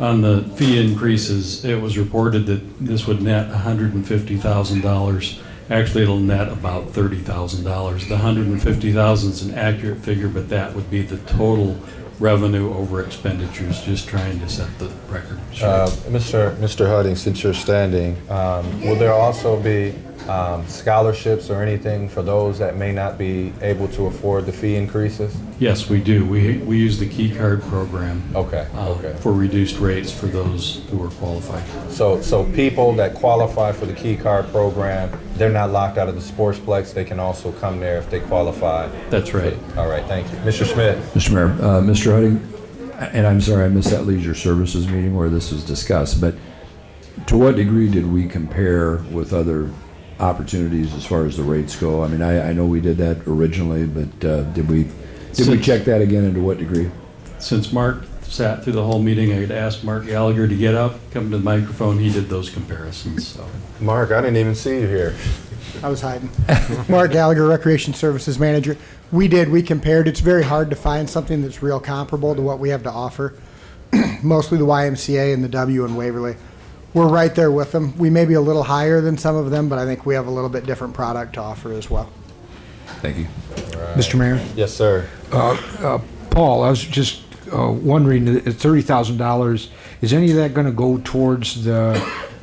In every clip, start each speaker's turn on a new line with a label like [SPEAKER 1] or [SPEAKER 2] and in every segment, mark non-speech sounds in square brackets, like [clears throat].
[SPEAKER 1] on the fee increases, it was reported that this would net $150,000. Actually, it'll net about $30,000. The $150,000 is an accurate figure, but that would be the total revenue over expenditures, just trying to set the record
[SPEAKER 2] Uh,
[SPEAKER 1] straight.
[SPEAKER 2] Mr. Mr. Hudding, since you're standing, um, will there also be um, scholarships or anything for those that may not be able to afford the fee increases?
[SPEAKER 1] Yes, we do. We, we use the key card program
[SPEAKER 2] Okay,
[SPEAKER 1] uh,
[SPEAKER 2] okay.
[SPEAKER 1] for reduced rates for those who are qualified.
[SPEAKER 2] So, so people that qualify for the Key Card program, they're not locked out of the Sportsplex. They can also come there if they qualify.
[SPEAKER 1] That's right.
[SPEAKER 2] All right, thank you. Mr. Schmidt?
[SPEAKER 3] Mr. Mayor, uh, Mr. Hudding, and I'm sorry, I missed that leisure services meeting where this was discussed, but to what degree did we compare with other opportunities as far as the rates go? I mean, I, I know we did that originally, but uh, did we, did we check that again and to what degree?
[SPEAKER 1] Since Mark sat through the whole meeting, I had asked Mark Gallagher to get up, come to the microphone. He did those comparisons, so.
[SPEAKER 2] Mark, I didn't even see you here.
[SPEAKER 4] I was hiding. [laughs] Mark Gallagher, Recreation Services Manager. We did, we compared. It's very hard to find something that's real comparable to what we have to offer. [clears throat] Mostly the YMCA and the W in Waverly. We're right there with them. We may be a little higher than some of them, but I think we have a little bit different product to offer as well.
[SPEAKER 3] Thank you.
[SPEAKER 5] Mr. Mayor? uh,
[SPEAKER 2] Yes, sir.
[SPEAKER 5] Paul, I was just uh, wondering, at $30,000, is any of that going to go towards the,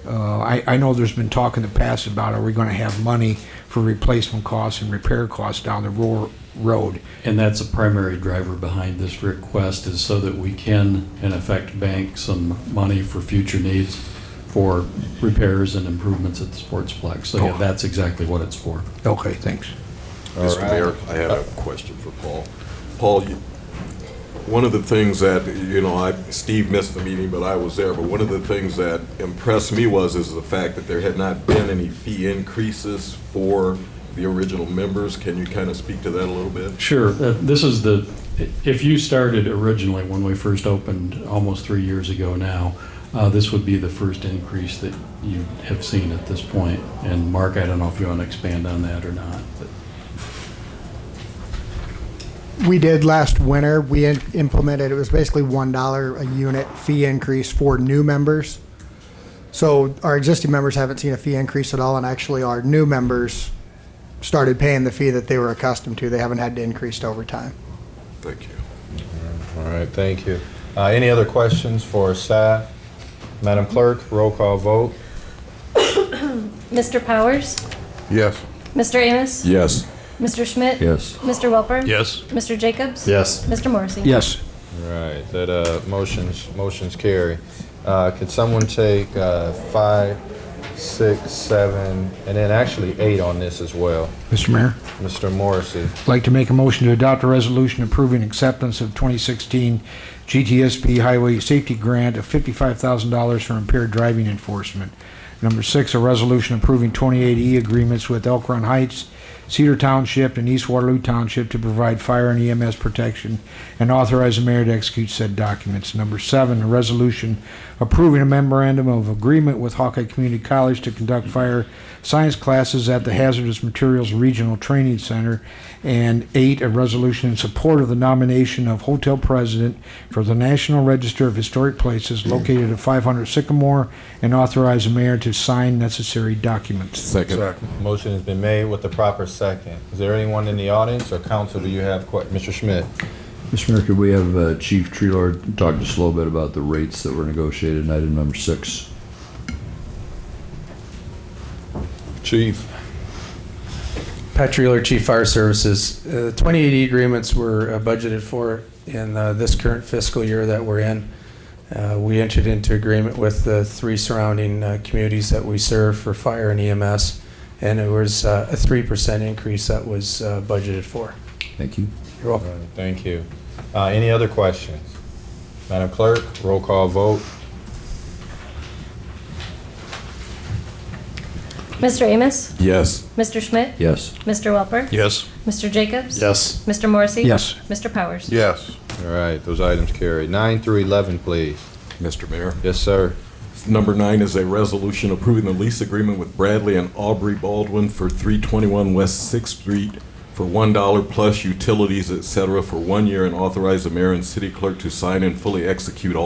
[SPEAKER 5] uh, I I know there's been talk in the past about, are we going to have money for replacement costs and repair costs down the ro- road?
[SPEAKER 1] And that's a primary driver behind this request is so that we can, in effect, bank some money for future needs for repairs and improvements at the Sportsplex. So yeah, that's exactly what it's for.
[SPEAKER 5] Okay, thanks.
[SPEAKER 6] Mr. Mayor, I had a question for Paul. Paul, you- one of the things that, you know, I, Steve missed the meeting, but I was there, but one of the things that impressed me was, is the fact that there had not been any fee increases for the original members. Can you kind of speak to that a little bit?
[SPEAKER 1] Sure. Uh, This is the, if you started originally when we first opened almost three years ago now, uh, this would be the first increase that you have seen at this point. And Mark, I don't know if you want to expand on that or not, but.
[SPEAKER 4] We did last winter, we in- implemented, it was basically $1 a unit fee increase for new members. So our existing members haven't seen a fee increase at all, and actually our new members started paying the fee that they were accustomed to. They haven't had to increase over time.
[SPEAKER 6] Thank you.
[SPEAKER 2] All right, thank you. Uh, Any other questions for staff? Madam Clerk, roll call vote.
[SPEAKER 7] Mr. Powers?
[SPEAKER 6] Yes.
[SPEAKER 7] Mr. Amos?
[SPEAKER 6] Yes.
[SPEAKER 7] Mr. Schmidt?
[SPEAKER 3] Yes.
[SPEAKER 7] Mr. Welper?
[SPEAKER 6] Yes.
[SPEAKER 7] Mr. Jacobs?
[SPEAKER 2] Yes.
[SPEAKER 7] Mr. Morrissey?
[SPEAKER 5] Yes.
[SPEAKER 2] All right, that uh, motions, motions carry. Uh, Could someone take uh, five, six, seven, and then actually eight on this as well?
[SPEAKER 5] Mr. Mayor?
[SPEAKER 2] Mr. Morrissey,
[SPEAKER 5] I'd like to make a motion to adopt a resolution approving acceptance of 2016 GTSP Highway Safety Grant of $55,000 for impaired driving enforcement. Number six, a resolution approving 28E agreements with Elk Run Heights, Cedar Township, and East Waterloo Township to provide fire and EMS protection and authorize the mayor to execute said documents. Number seven, a resolution approving a memorandum of agreement with Hawkeye Community College to conduct fire science classes at the Hazardous Materials Regional Training Center. And eight, a resolution in support of the nomination of hotel president for the National Register of Historic Places located at 500 Sycamore and authorize the mayor to sign necessary documents.
[SPEAKER 6] Second.
[SPEAKER 2] motion has been made with the proper second. Is there anyone in the audience or council, do you have, que- Mr. Schmidt?
[SPEAKER 3] Mr. Mayor, could we have uh, Chief Tree Lord talk just a little bit about the rates that were negotiated in item number six?
[SPEAKER 6] Chief?
[SPEAKER 8] Pat Treeler, Chief Fire Services. Uh, The 2080 agreements were uh, budgeted for in uh, this current fiscal year that we're in. Uh, We entered into agreement with the three surrounding uh, communities that we serve for fire and EMS, and it was uh, a 3% increase that was uh, budgeted for.
[SPEAKER 3] Thank you.
[SPEAKER 8] You're welcome.
[SPEAKER 2] All right, Thank you. Uh, Any other questions? Madam Clerk, roll call vote.
[SPEAKER 7] Mr. Amos?
[SPEAKER 6] Yes.
[SPEAKER 7] Mr. Schmidt?
[SPEAKER 3] Yes.
[SPEAKER 7] Mr. Welper?
[SPEAKER 6] Yes.
[SPEAKER 7] Mr. Jacobs?
[SPEAKER 6] Yes.
[SPEAKER 7] Mr. Morrissey?
[SPEAKER 5] Yes.
[SPEAKER 7] Mr. Powers?
[SPEAKER 6] Yes.
[SPEAKER 2] All right, those items carry. Nine through 11, please.
[SPEAKER 6] Mr. Mayor?
[SPEAKER 2] Yes, sir.
[SPEAKER 6] Number nine is a resolution approving the lease agreement with Bradley and Aubrey Baldwin for 321 West Sixth Street for $1 plus utilities, et cetera, for one year, and authorize the mayor and city clerk to sign and fully execute all.